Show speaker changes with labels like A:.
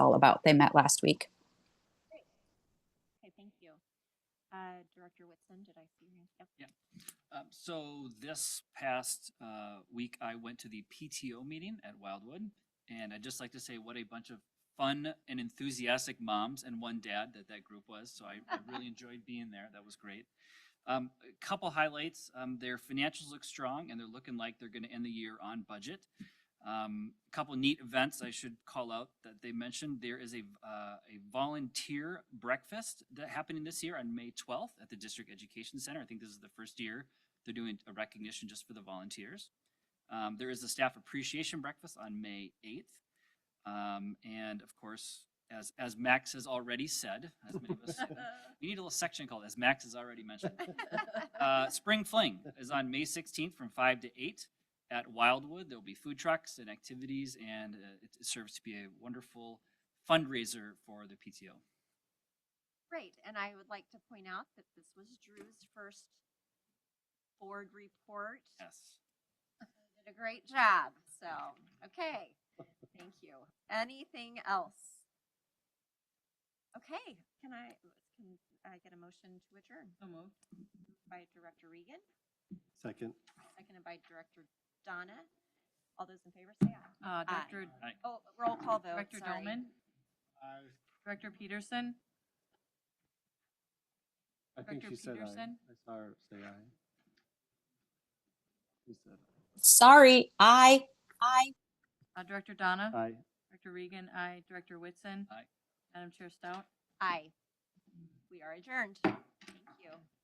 A: all about. They met last week.
B: Okay, thank you. Uh, Director Whitson, did I see you? Yep.
C: Um, so this past uh, week, I went to the PTO meeting at Wildwood, and I'd just like to say what a bunch of fun and enthusiastic moms and one dad that that group was. So I, I really enjoyed being there. That was great. Um, a couple highlights: um, their financials look strong, and they're looking like they're going to end the year on budget. Um, a couple neat events I should call out that they mentioned. There is a, uh, a volunteer breakfast that happening this year on May 12th at the District Education Center. I think this is the first year they're doing a recognition just for the volunteers. Um, there is a staff appreciation breakfast on May 8th. Um, and of course, as, as Max has already said, as many of us, we need a little section called, as Max has already mentioned. Uh, Spring Fling is on May 16th from 5 to 8 at Wildwood. There'll be food trucks and activities, and uh, it serves to be a wonderful fundraiser for the PTO.
B: Great, and I would like to point out that this was Drew's first board report.
C: Yes.
B: You Did a great job, so, okay, thank you. Anything else? Okay, can I, can I get a motion to adjourn? By Director Regan,
D: Second.
B: seconded by Director Donna. All those in favor say aye.
E: Uh, Director,
B: Oh, roll call vote,
E: Director
B: sorry.
E: Dolman? Uh, Director Peterson?
D: I think
E: Director
D: she said aye.
E: Peterson?
D: I saw her say aye. She said
A: Sorry, I, I,
E: Uh, Director Donna?
D: aye.
E: Director Regan, aye. Director Whitson?
C: Aye.
E: Madam Chair Stout?
B: Aye. We are adjourned. Thank you.